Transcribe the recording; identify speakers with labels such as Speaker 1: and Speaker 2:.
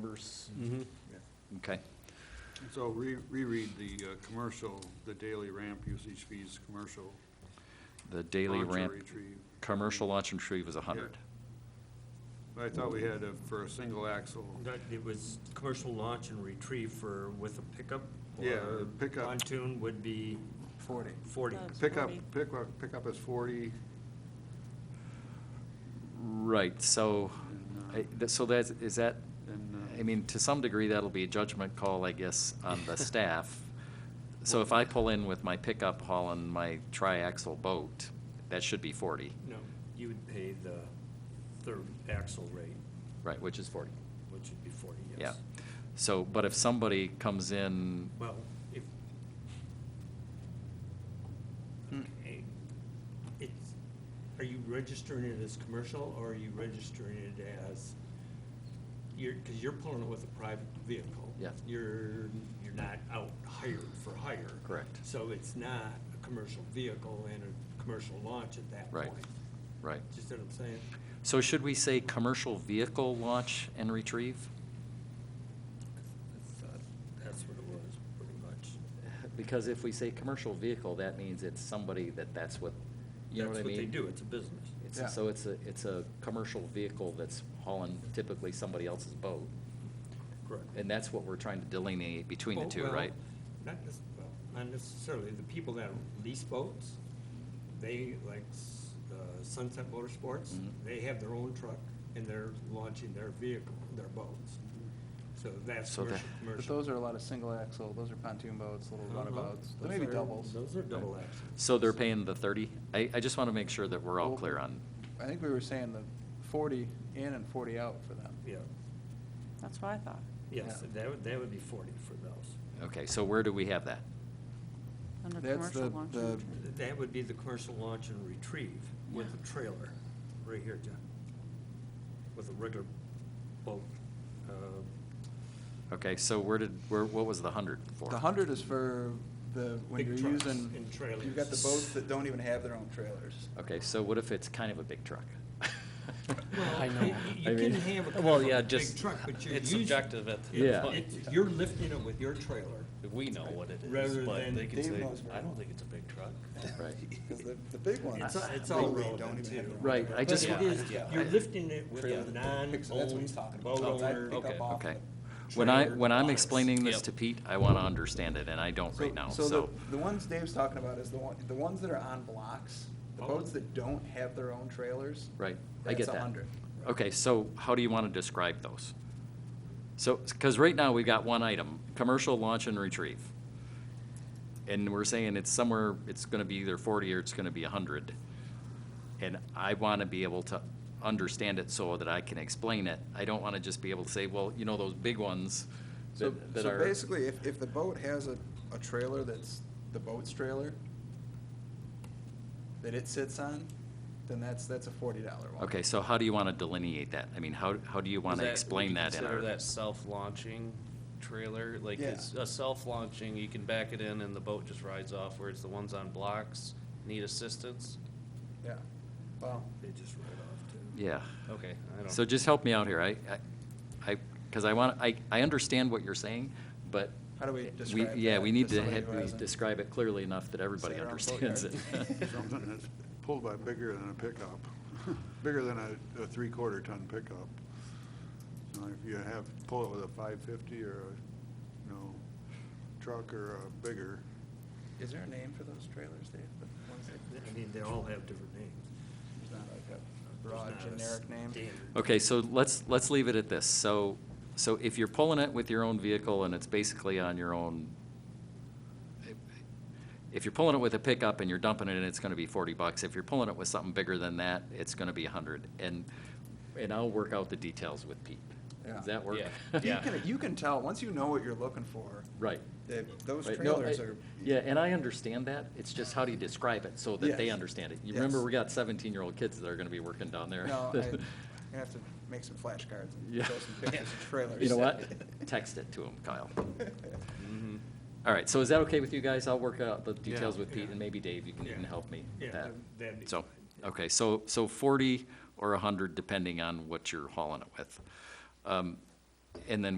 Speaker 1: numbers? Okay.
Speaker 2: So re- reread the uh, commercial, the daily ramp usage fees, commercial.
Speaker 1: The daily
Speaker 2: launch or
Speaker 1: ramp,
Speaker 2: retrieve.
Speaker 1: commercial launch and retrieve was 100.
Speaker 2: But I thought we had a- for a single axle.
Speaker 3: That, it was commercial launch and retrieve for, with a pickup?
Speaker 2: Yeah,
Speaker 3: or
Speaker 2: pickup.
Speaker 3: Pontoon would be
Speaker 4: Forty.
Speaker 3: forty.
Speaker 5: That's
Speaker 2: Pickup,
Speaker 5: 40.
Speaker 2: pickup, pickup is forty.
Speaker 1: Right, so, I- that- so that's, is that,
Speaker 2: And, uh,
Speaker 1: I mean, to some degree, that'll be a judgment call, I guess, on the staff. So if I pull in with my pickup hauling my triaxle boat, that should be 40,
Speaker 3: No, you would pay the third axle rate,
Speaker 1: right, which is 40,
Speaker 3: which would be forty,
Speaker 1: yeah.
Speaker 3: yes.
Speaker 1: So, but if somebody comes in,
Speaker 3: Well, if. Okay, It's, are you registering it as commercial or are you registering it as, you're, because you're pulling it with a private vehicle.
Speaker 1: Yeah.
Speaker 3: You're, you're not out hired for hire.
Speaker 1: Correct.
Speaker 3: So it's not a commercial vehicle and a commercial launch at that
Speaker 1: Right.
Speaker 3: point.
Speaker 1: right.
Speaker 3: Do you see what I'm saying?
Speaker 1: So should we say commercial vehicle launch and retrieve?
Speaker 3: I thought That's what it was, pretty much.
Speaker 1: Because if we say commercial vehicle, that means it's somebody that that's what, you know what I
Speaker 3: That's what
Speaker 1: mean?
Speaker 3: they do, it's a business.
Speaker 4: Yeah.
Speaker 1: It's, so it's a, it's a commercial vehicle that's hauling typically somebody else's boat.
Speaker 3: Correct.
Speaker 1: And that's what we're trying to delineate between the
Speaker 3: Well,
Speaker 1: two,
Speaker 3: well,
Speaker 1: right?
Speaker 3: Not necess- well, not necessarily, the people that lease boats, they, like s- uh, Sunset Motorsports,
Speaker 1: Mhm.
Speaker 3: they have their own truck and they're launching their vehicle, their boats. So that's
Speaker 1: So
Speaker 3: commercial,
Speaker 1: that-
Speaker 4: But
Speaker 3: commercial.
Speaker 4: those are a lot of single axle, those are pontoon boats, little
Speaker 3: Uh-huh.
Speaker 4: runabouts,
Speaker 3: Those
Speaker 4: maybe
Speaker 3: are-
Speaker 4: doubles.
Speaker 3: Those are double axles.
Speaker 1: So they're paying the thirty? I, I just want to make sure that we're all
Speaker 4: Well-
Speaker 1: clear on,
Speaker 4: I think we were saying the forty in and forty out for them.
Speaker 3: Yeah,
Speaker 5: That's what I thought.
Speaker 3: yes,
Speaker 4: Yeah.
Speaker 3: that would, that would be forty for those.
Speaker 1: okay, so where do we have that?
Speaker 5: Under
Speaker 4: That's
Speaker 5: commercial
Speaker 4: the-
Speaker 5: launch
Speaker 4: the-
Speaker 5: and retrieve.
Speaker 3: That would be the commercial launch and retrieve with a trailer, right here, John. With a regular boat, uh,
Speaker 1: Okay, so where did, where, what was the hundred for?
Speaker 4: The hundred is for the, when
Speaker 3: Big
Speaker 4: you're
Speaker 3: trucks
Speaker 4: using.
Speaker 3: and trailers.
Speaker 4: You've got the boats that don't even have their own trailers.
Speaker 1: Okay, so what if it's kind of a big truck?
Speaker 3: Well,
Speaker 1: I
Speaker 3: you-
Speaker 1: know.
Speaker 3: you
Speaker 1: I
Speaker 3: can
Speaker 1: mean-
Speaker 3: have a kind
Speaker 6: Well,
Speaker 3: of a
Speaker 6: yeah,
Speaker 3: big
Speaker 6: just-
Speaker 3: truck, but you're
Speaker 6: it's
Speaker 3: using-
Speaker 6: subjective at the
Speaker 1: Yeah.
Speaker 3: It's- You're lifting it with your trailer.
Speaker 6: We know what it
Speaker 3: Rather
Speaker 6: is, but
Speaker 3: than-
Speaker 6: they can
Speaker 4: Dave
Speaker 6: say,
Speaker 4: knows
Speaker 6: I
Speaker 4: very well."
Speaker 6: don't think it's a big truck.
Speaker 1: Right.
Speaker 4: Because the, the big ones.
Speaker 3: It's, it's
Speaker 4: they
Speaker 3: all
Speaker 4: really don't
Speaker 3: relevant
Speaker 4: even have
Speaker 3: too.
Speaker 4: their own
Speaker 1: Right,
Speaker 4: trailers.
Speaker 1: I
Speaker 3: But
Speaker 1: just
Speaker 3: it
Speaker 1: want-
Speaker 3: is-
Speaker 6: yeah,
Speaker 3: You're
Speaker 1: I-
Speaker 3: lifting it with
Speaker 4: Trailer.
Speaker 3: a non-owned
Speaker 4: Pixel, that's what he's talking about.
Speaker 3: boat
Speaker 4: So I
Speaker 3: owner.
Speaker 4: pick up
Speaker 6: okay.
Speaker 4: off
Speaker 1: Okay.
Speaker 4: the
Speaker 1: When I,
Speaker 4: trailer.
Speaker 1: when I'm
Speaker 3: box.
Speaker 1: explaining this
Speaker 6: Yep.
Speaker 1: to Pete, I want to understand it, and I don't right now,
Speaker 4: the-
Speaker 1: so.
Speaker 4: The ones Dave's talking about is the one, the ones that are on blocks, the
Speaker 3: Oh.
Speaker 4: boats that don't have their own trailers.
Speaker 1: Right, I get that.
Speaker 4: That's a hundred.
Speaker 1: Okay, so how do you want to describe those? So, because right now, we've got one item, commercial launch and retrieve. And we're saying it's somewhere, it's going to be either forty or it's going to be hundred. And I want to be able to understand it so that I can explain it. I don't want to just be able to say, well, you know, those big ones
Speaker 4: So,
Speaker 1: that that
Speaker 4: so
Speaker 1: are.
Speaker 4: basically, if, if the boat has a, a trailer that's the boat's trailer that it sits on, then that's, that's a forty dollar one.
Speaker 1: Okay, so how do you want to delineate that? I mean, how, how do you want to explain that in our?
Speaker 6: Consider that self-launching trailer, like
Speaker 4: Yeah.
Speaker 6: it's a self-launching, you can back it in and the boat just rides off, whereas the ones on blocks need assistance?
Speaker 4: Yeah, well,
Speaker 3: They just ride off too.
Speaker 1: Yeah.
Speaker 6: Okay, I don't.
Speaker 1: So just help me out here. I, I- I, because I want, I, I understand what you're saying, but.
Speaker 4: How do we describe
Speaker 1: Yeah,
Speaker 4: that
Speaker 1: we
Speaker 4: to
Speaker 1: need to
Speaker 4: somebody
Speaker 1: hit-
Speaker 4: who
Speaker 1: we
Speaker 4: hasn't
Speaker 1: describe it clearly enough that everybody
Speaker 4: sat around
Speaker 1: understands it.
Speaker 4: boatyard?
Speaker 2: Something that's pulled by bigger than a pickup, bigger than a, a three-quarter ton pickup. So if you have, pull it with a five fifty or a, you know, truck or a bigger,
Speaker 4: Is there a name for those trailers, Dave? The ones that-
Speaker 3: I mean, they all have different names.
Speaker 4: There's not like a
Speaker 3: There's
Speaker 4: broad
Speaker 3: not a
Speaker 4: generic name.
Speaker 3: standard.
Speaker 1: Okay, so let's, let's leave it at this. So, so if you're pulling it with your own vehicle and it's basically on your own, if you're pulling it with a pickup and you're dumping it in, it's gonna be forty bucks. If you're pulling it with something bigger than that, it's gonna be a hundred. And, and I'll work out the details with Pete.
Speaker 4: Yeah.
Speaker 1: Does that work?
Speaker 6: Yeah.
Speaker 4: You can, you can tell, once you know what you're looking for,
Speaker 1: Right.
Speaker 4: that those
Speaker 1: Right, no,
Speaker 4: trailers
Speaker 1: I-
Speaker 4: are.
Speaker 1: Yeah, and I understand that, it's just how do you describe it so that they
Speaker 4: Yes.
Speaker 1: understand it? You remember,
Speaker 4: Yes.
Speaker 1: we got seventeen-year-old kids that are gonna be working down there.
Speaker 4: No, I, I'm gonna have to make some flashcards and
Speaker 1: Yeah.
Speaker 4: show some pictures of trailers.
Speaker 1: You know what? Text it to them, Kyle. All right, so is that okay with you guys? I'll work out the details with Pete,
Speaker 3: Yeah.
Speaker 1: and maybe Dave, you can, you can
Speaker 3: Yeah.
Speaker 1: help me with
Speaker 3: Yeah,
Speaker 1: that.
Speaker 3: that'd be
Speaker 1: So,
Speaker 3: fine.
Speaker 1: okay, so, so forty or a hundred, depending on what you're hauling it with. Um, and then